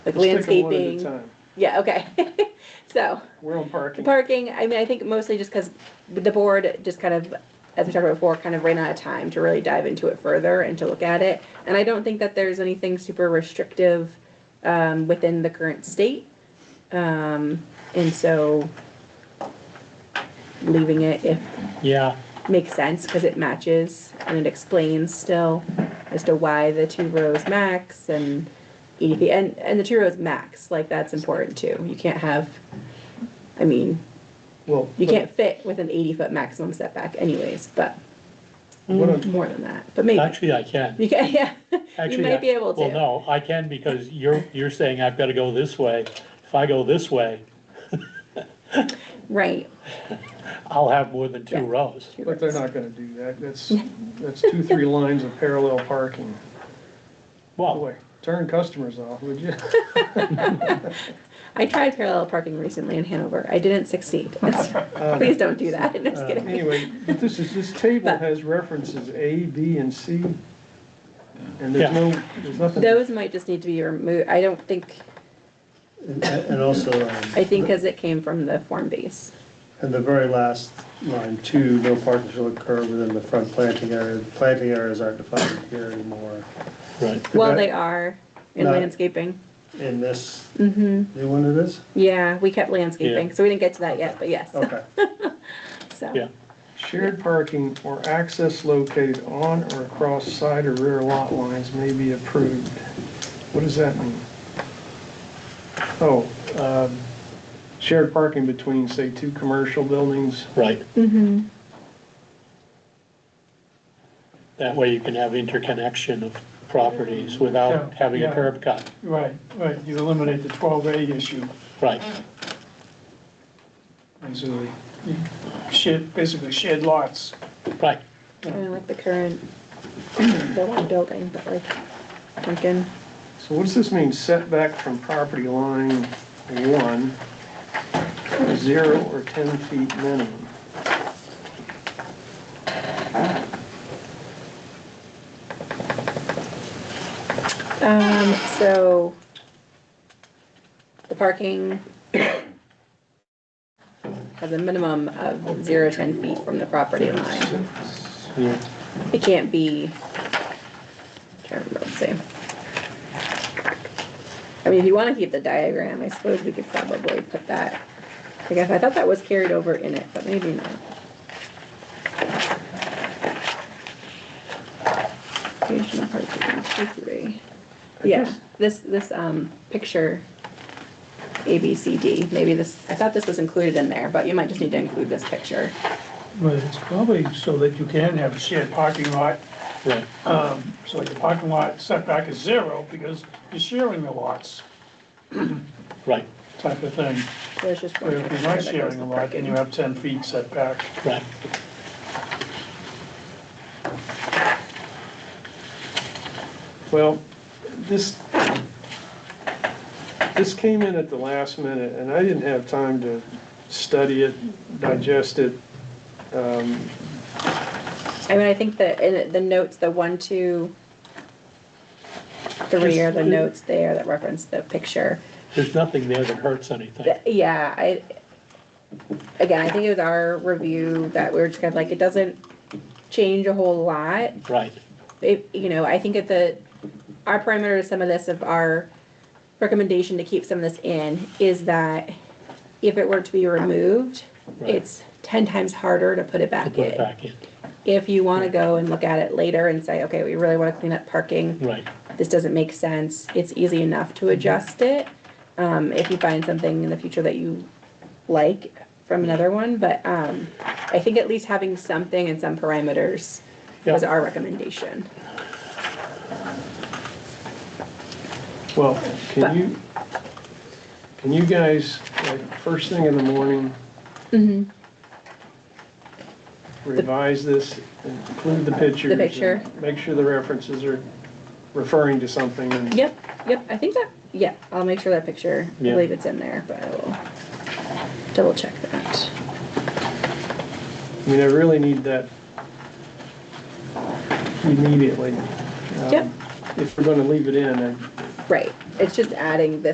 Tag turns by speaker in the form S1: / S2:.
S1: like
S2: Let's take 'em one at a
S1: landscaping.
S2: time.
S1: Yeah, okay. So,
S2: We're on
S1: the
S2: parking.
S1: parking, I mean, I think mostly just because the board just kind of, as we talked about before, kind of ran out of time to really dive into it further and to look at it. And I don't think that there's anything super restrictive um, within the current state. Um, And so leaving it if
S3: Yeah,
S1: makes sense because it matches and it explains still as to why the two rows max and EDP and, and the two rows max, like that's important too. You can't have, I mean,
S2: Well,
S1: you
S2: but
S1: can't fit with an eighty foot maximum setback anyways, but
S2: What I'm,
S1: more than that, but maybe.
S3: actually I can.
S1: You can, yeah, you
S3: Actually, I-
S1: might be able
S3: Well,
S1: to.
S3: no, I can because you're, you're saying I've got to go this way. If I go this way,
S1: Right,
S3: I'll have more than
S1: Yeah.
S3: two rows.
S2: but they're not gonna do that. That's, that's two, three lines of parallel parking.
S3: Well,
S2: Oh, Boy, turn customers off, would you?
S1: I tried parallel parking recently in Hanover. I didn't succeed. Please don't do that. I'm just kidding.
S2: Uh, Anyway, but this is, this table
S1: But-
S2: has references A, B, and C. And there's
S3: Yeah.
S2: no, there's nothing.
S1: Those might just need to be removed. I don't think,
S4: And, and also, um,
S1: I think because it came from the form base.
S4: and the very last line, two, no parking shall occur within the front planting area. Planting areas aren't defined here anymore.
S3: right,
S1: Well,
S4: Okay.
S1: they are in
S4: No.
S1: landscaping.
S4: In this
S1: hmm
S4: new one it is?
S1: Yeah, we kept landscaping,
S3: Yeah.
S1: so we didn't get to that yet, but yes.
S4: Okay.
S1: So,
S3: yeah.
S2: Shared parking or access located on or across side or rear lot lines may be approved. What does that mean? Oh, um, shared parking between, say, two commercial buildings.
S3: Right,
S1: hmm
S3: that way you can have interconnection of properties without
S5: Yeah,
S3: having a
S5: yeah.
S3: curb cut,
S5: Right, right, you eliminate the twelve A issue,
S3: right,
S5: and so you shed, basically shed lots.
S3: right.
S1: kind of like the current, the one building, but like Duncan.
S2: So what does this mean setback from property line one, zero or 10 feet minimum?
S1: Um, so the parking has a minimum of zero to ten feet from the property line.
S3: Yeah.
S1: It can't be, can't remember, let's see. I mean, if you wanna keep the diagram, I suppose we could probably put that, I guess, I thought that was carried over in it, but maybe not. Occasional parking, two, three. Yeah, this, this, um, picture, A, B, C, D, maybe this, I thought this was included in there, but you might just need to include this picture.
S5: But it's probably so that you can have a shared parking lot,
S3: Right,
S5: um, so your parking lot setback is zero because you're sharing the lots
S3: right,
S5: type of thing.
S1: There's just one
S5: But if you're
S1: picture
S5: not
S1: that goes
S5: sharing a
S1: with
S5: lot, then
S1: parking.
S5: you have ten feet setback.
S3: right.
S2: Well, this, this came in at the last minute, and I didn't have time to study it, digest it. Um,
S1: I mean, I think that in it- the notes, the one, two, three are the notes there that reference the picture.
S3: There's nothing there that hurts anything.
S1: Th- Yeah, I, again, I think it was our review that we were just kind of like, it doesn't change a whole lot.
S3: Right,
S1: It, you know, I think that the, our parameter to some of this of our recommendation to keep some of this in is that if it were to be removed,
S3: Right.
S1: it's ten times harder to put it
S3: to
S1: back
S3: put it
S1: in.
S3: back in,
S1: If you want to go and look at it later and say, okay, we really want to clean up parking
S3: right,
S1: this doesn't make sense, it's easy enough
S3: Mm-hmm.
S1: to adjust it. Um, if you find something in the future that you like
S3: Mm-hmm.
S1: from another one, but, um, I think at least having something and some parameters was
S3: Yeah.
S1: our recommendation.
S2: Well, can you, can you guys, like, first thing in the morning, revise this, include the pictures? and
S1: picture.
S2: Make sure the references are referring to something, and
S1: Yep, yep, I think that, yeah, I'll make sure that picture, I
S3: Yeah.
S1: believe it's in there, but I will double check that.
S2: I mean, I really need that immediately. Um,
S1: Yep.
S2: If we're gonna leave it in, I
S1: Right, it's just adding this